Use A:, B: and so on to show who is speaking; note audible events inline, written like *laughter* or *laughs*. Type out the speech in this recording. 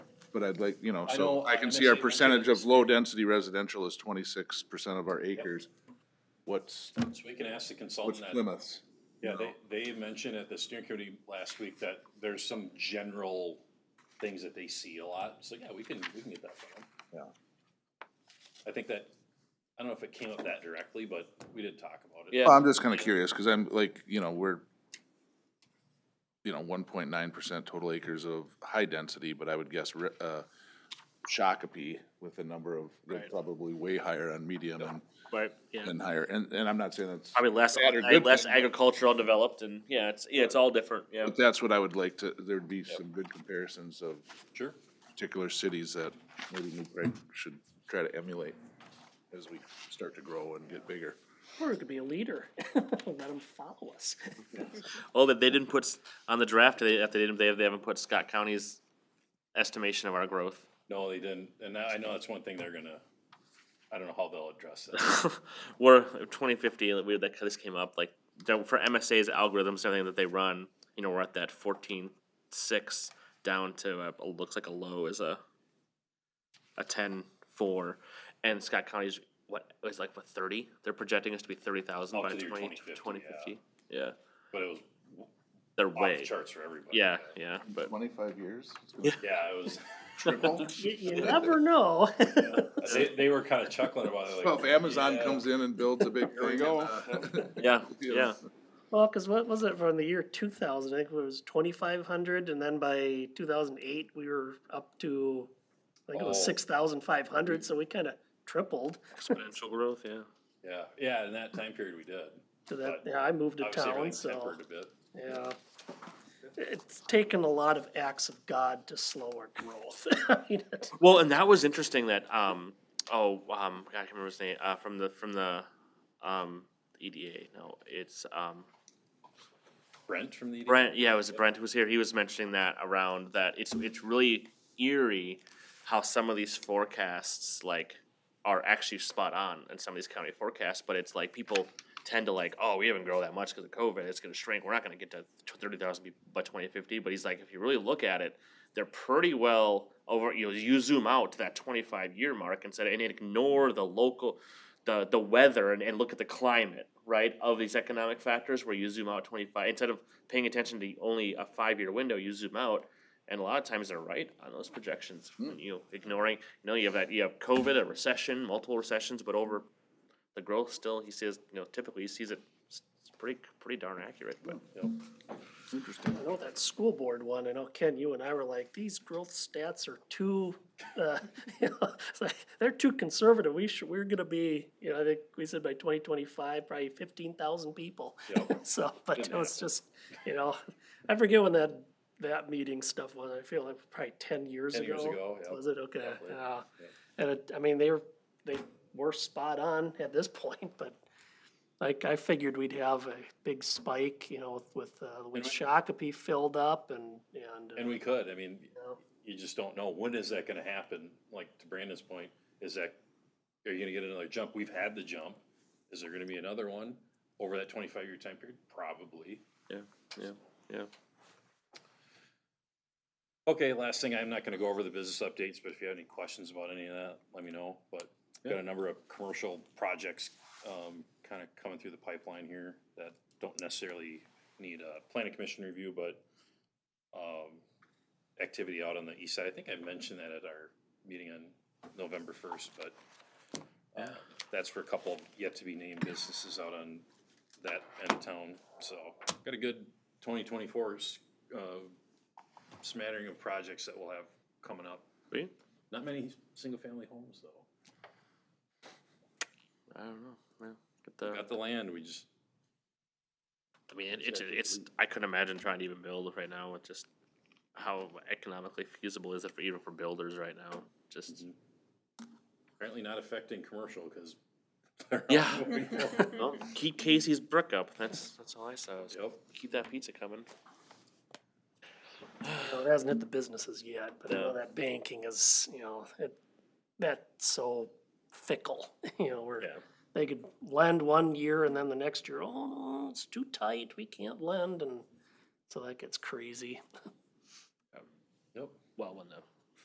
A: but I'd like, you know,
B: I
A: so
B: know,
A: I
B: I'm
A: can
B: gonna
A: see our
B: say-
A: percentage of low-density residential is twenty-six percent of our acres. What's,
B: So we can ask the
A: what's
B: consultant that,
A: Plymouth's?
B: yeah, they, they mentioned at the steering committee last week that there's some general things that they see a lot, so yeah, we can, we can get that from them.
A: Yeah.
B: I think that, I don't know if it came up that directly, but we did talk about it.
C: Yeah.
A: Well, I'm just kinda curious, cause I'm like, you know, we're, you know, one point nine percent total acres of high density, but I would guess, re- uh, Shakopee with a number of, they're
C: Right.
A: probably way higher on medium and,
C: Right, yeah.
A: and higher, and, and I'm not saying that's,
C: Probably less,
A: Bad or good
C: less
A: thing.
C: agricultural developed and, yeah, it's, yeah, it's all different, yeah.
A: but that's what I would like to, there'd be some good comparisons of
B: Sure.
A: particular cities that maybe New Prague should try to emulate as we start to grow and get bigger.
D: Or we could be a leader, *laughs* let them follow
B: *laughs*
D: us.
C: Oh, that they didn't put, s- on the draft, they, that they didn't, they, they haven't put Scott County's estimation of our growth. *laughs*
B: No, they didn't, and I I know that's one thing they're gonna, I don't know how they'll address that.
C: We're, twenty fifty, we, that, this came up, like, that- for MSA's algorithms, everything that they run, you know, we're at that fourteen six down to, uh, it looks like a low is a, a ten four, and Scott County's, what, is like, what, thirty? They're projecting us to be thirty thousand
B: Up
C: by
B: to the year
C: Oh, twenty,
B: 2050,
C: twenty fifty, yeah,
B: But it was
C: they're
B: off
C: way,
B: the charts for everybody.
C: yeah, yeah, but. *laughs*
A: Twenty-five years? It's gonna
C: Yeah.
B: Yeah, it was,
A: Triple?
D: *laughs* You, you never know. *laughs*
B: they, they were kinda chuckling about it like.
A: Well, if Amazon
B: yeah.
A: comes in and builds a big thing.
B: Here we go.
A: and, uh, *laughs*
C: Yeah,
A: you
C: yeah,
A: know,
D: Well, cause what was it from the year two thousand, I think it was twenty-five hundred, and then by two thousand eight, we were up to, I think it
B: Oh.
D: was six thousand five hundred, so we kinda tripled
C: exponential growth, yeah.
B: Yeah, yeah, in that time period we did.
D: to that,
B: But
D: yeah, I moved to
B: Obviously,
D: town,
B: everything
D: so,
B: tempered a bit.
D: yeah. It's taken a lot of acts of God to slow our growth. *laughs* I mean, it-
C: Well, and that was interesting that, um, oh, um, I can't remember his name, uh, from the, from the, um, EDA, no, it's, um,
B: Brent from the. E EDM?
C: Brent, yeah, it was Brent who was here, he was mentioning that around that it's, it's really eerie how some of these forecasts, like, are actually spot on in some of these county forecasts, but it's like people tend to like, oh, we haven't grown that much because of COVID, it's gonna shrink, we're not gonna get to thirty thousand people by twenty fifty, but he's like, if you really look at it, they're pretty well over, you know, you zoom out to that twenty-five year mark and said, and ignore the local, the, the weather and, and look at the climate, right, of these economic factors where you zoom out twenty-five, instead of paying attention to only a five-year window, you zoom out. And a lot of times they're right on those projections, when you ignoring, you know, you have that, you have COVID, a recession, multiple recessions, but over the growth still, he says, you know, typically he sees it, it's pretty, pretty darn accurate, but.
A: Interesting.
D: I know that school board one, I know Ken, you and I were like, these growth stats are too, uh, *laughs* you know, it's like, they're too conservative, we should, we're gonna be, you know, I think we said by twenty twenty-five, probably fifteen thousand people.
B: Yep.
D: *laughs* So, but it
B: Didn't
D: was just, you know, I forget when that, that meeting stuff was, I feel like probably ten years
B: Ten
D: ago.
B: years ago, yeah.
D: Was it, okay,
B: Probably,
D: yeah, and it, I mean, they were, they were spot on at this *laughs* point, but like, I figured we'd have a big spike, you know, with, with, uh, when
B: we-
D: Shakopee filled up and, and. uh,
B: And we could, I mean,
D: you know,
B: you just don't know, when is that gonna happen? Like, to Brandon's point, is that, are you gonna get another jump? We've had the jump, is there gonna be another one over that twenty-five year time period? Probably.
C: Yeah, yeah.
B: Okay, last thing, I'm not gonna go over the business updates, but if you have any questions about any of that, let me know, but got a number of commercial projects, um, kinda coming through the pipeline here that don't necessarily need a planning commission review, but, um, activity out on the east side, I think I mentioned that at our meeting on November first, but uh, that's for a couple yet to be named businesses out on that end of town, so got a good twenty twenty-four, uh, smattering of projects that we'll have coming up.
C: Sweet.
B: Not many single-family homes, though.
C: I don't know, yeah. Get the,
B: Got the land, we just,
C: I mean, it- it's, it's, I couldn't imagine trying to even build right now with just how economically feasible is it for, even for builders right now, just.
B: apparently not affecting commercial, because. *laughs* they're all
C: Yeah.
B: moving forward.
C: Well, keep Casey's brick up, that's, that's all I saw, was
B: Yep,
C: keep that pizza coming.
D: you know, it hasn't hit the businesses yet, but I
C: No.
D: know that banking is, you know, it, that's so fickle, *laughs* you know, where
B: yeah,
D: they could lend one year and then the next year, oh, no, it's too tight, we can't lend, and so that gets crazy.
B: yep.
C: Well, when the